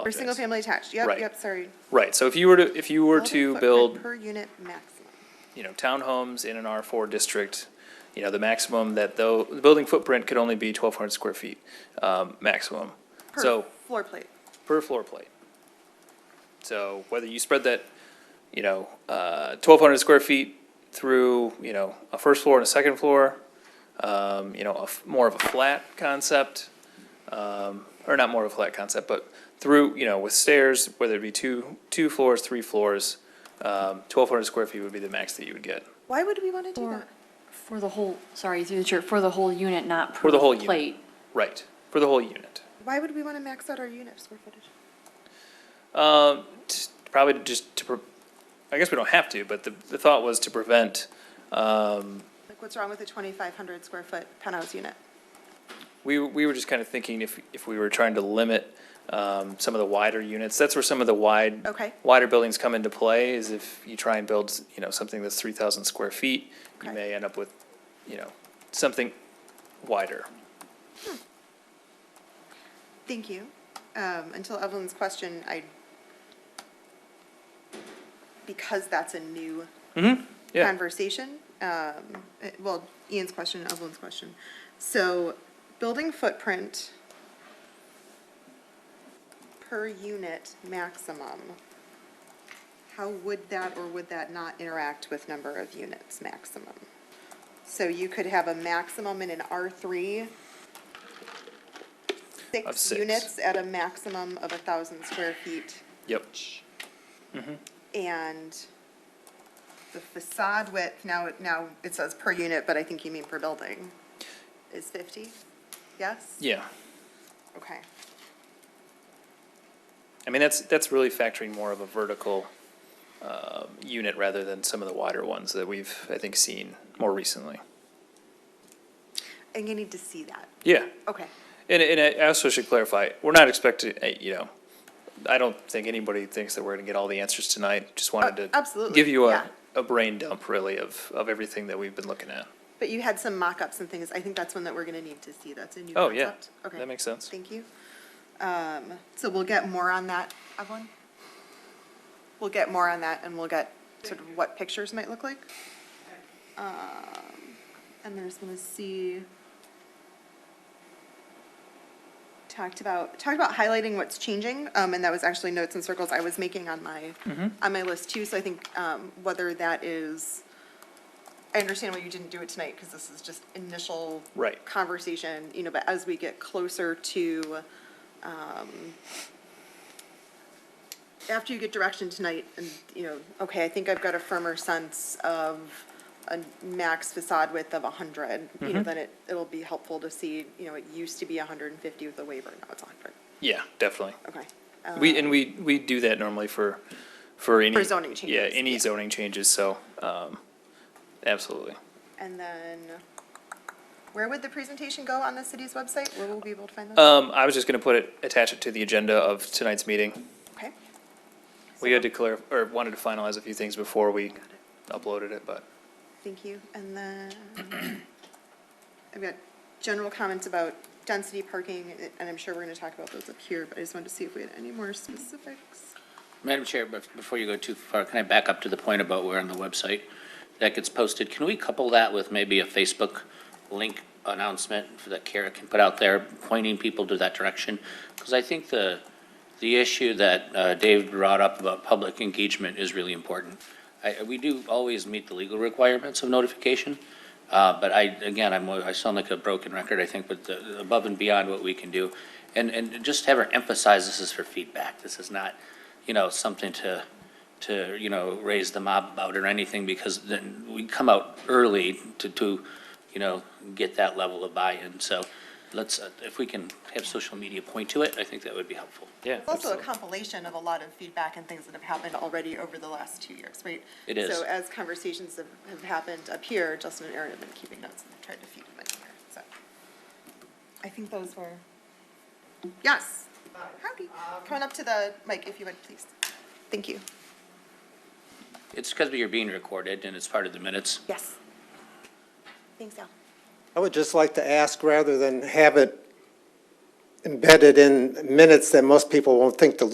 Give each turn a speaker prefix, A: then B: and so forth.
A: Or
B: apologize.
A: single family Oh, attached, yep,
B: Right.
A: yep, sorry.
B: Right, so if you were to, if you were
A: Building
B: to
A: footprint
B: build
A: Per unit maximum.
B: you know, townhomes in an R4 district, you know, the maximum that though, the building footprint could only be 1,200 square feet, um, maximum.
A: Per
B: So,
A: Floor plate.
B: per floor plate. So whether you spread that, you know, uh, 1,200 square feet through, you know, a first floor and a second floor, um, you know, a f- more of a flat concept, um, or not more of a flat concept, but through, you know, with stairs, whether it be two, two floors, three floors, um, 1,200 square feet would be the max that you would get.
A: Why would we want to do
C: For,
A: that?
C: for the whole, sorry, through the chair, for the whole unit, not per
B: For the whole unit.
C: plate.
B: Right, for the whole unit.
A: Why would we want to max out our unit square footage?
B: Um, t- probably to just to, pre- I guess we don't have to, but the, the thought was to prevent, um,
A: Like, what's wrong with a twenty-five hundred square foot penthouse unit?
B: we, we were just kind of thinking if, if we were trying to limit, um, some of the wider units, that's where some of the wide,
A: Okay.
B: wider buildings come into play, is if you try and build, you know, something that's three thousand square feet, you
A: Okay.
B: may end up with, you know, something wider.
A: Thank you. Um, until Evelyn's question, I, because that's a new
B: Mm-hmm, yeah,
A: conversation, um, eh, well, Ian's question, Evelyn's question. So building footprint per unit maximum, how would that or would that not interact with number of units maximum? So you could have a maximum in an R three,
B: Of
A: six
B: six.
A: units at a maximum of a thousand square feet
B: yep,
A: and the facade width, now, it- now it says per unit, but I think you mean per building, is 50? Yes?
B: yeah.
A: Okay.
B: I mean, that's, that's really factoring more of a vertical um, unit rather than some of the wider ones that we've, I think, seen more recently.
A: And you need to see that.
B: Yeah,
A: Okay.
B: and, and I- I also should clarify, we're not expecting, eh, you know, I don't think anybody thinks that we're gonna get all the answers tonight, just wanted
A: Oh,
B: to.
A: absolutely,
B: Give you a,
A: yeah.
B: a brain dump, really, of, of everything that we've been looking at.
A: But you had some mock-ups and things. I think that's one that we're going to need to see. That's a new
B: Oh, yeah,
A: concept. Okay.
B: that makes sense.
A: Thank you. Um, So we'll get more on that, Evelyn? We'll get more on that, and we'll get sort of what pictures might look like. Um, And I just want to see. Talked about, talked about highlighting what's changing, um, and that was actually notes and circles I was making on my, on my list too, so I think, um, whether that is, I understand why you didn't do it tonight, because this is just initial
B: Right.
A: conversation, you know, but as we get closer to, um, after you get direction tonight and, you know, okay, I think I've got a firmer sense of a max facade width of hundred, you
B: Mm-hmm.
A: know, then it, it'll be helpful to see, you know, it used to be hundred and fifty with a waiver, now it's hundred,
B: Yeah, definitely.
A: okay. Um,
B: We, and we, we do that normally for, for any.
A: Uh, For zoning
B: Yeah,
A: changes,
B: any
A: yeah.
B: zoning changes, so, um, absolutely.
A: And then, where would the presentation go on the city's website? Where will we be able to find that?
B: Um, I was just gonna put it, attach it to the agenda of tonight's meeting.
A: Okay,
B: We had to clear, or wanted to finalize a few things before we uploaded it, but,
A: thank you. And then, I've got general comments about density parking, and I'm sure we're gonna talk about those up here, but I just wanted to see if we had any more specifics.
D: Madam Chair, bef- before you go too far, can I back up to the point about where on the website that gets posted? Can we couple that with maybe a Facebook link announcement for that Kara can put out there, pointing people to that direction? Because I think the, the issue that uh, Dave brought up about public engagement is really important. I, we do always meet the legal requirements of notification, uh, but I, again, I'm, I sound like a broken record, I think, but the, above and beyond what we can do. And, and just have her emphasize this is for feedback. This is not, you know, something to, to, you know, raise the mob about or anything, because then we come out early to, to, you know, get that level of buy-in. So let's, uh, if we can have social media point to it, I think that would be helpful.
B: yeah.
A: It's also a compilation of a lot of feedback and things that have happened already over the last two years, right?
D: It is.
A: So as conversations have, have happened up here, Justin and Erin have been keeping notes and tried to feed them in here, so. I think those were, yes. Howdy. Come on up to the mic if you would, please. Thank you.
D: It's because you're being recorded and it's part of the minutes.
A: Yes. Thanks, Al.
E: I would just like to ask, rather than have it embedded in minutes that most people won't think to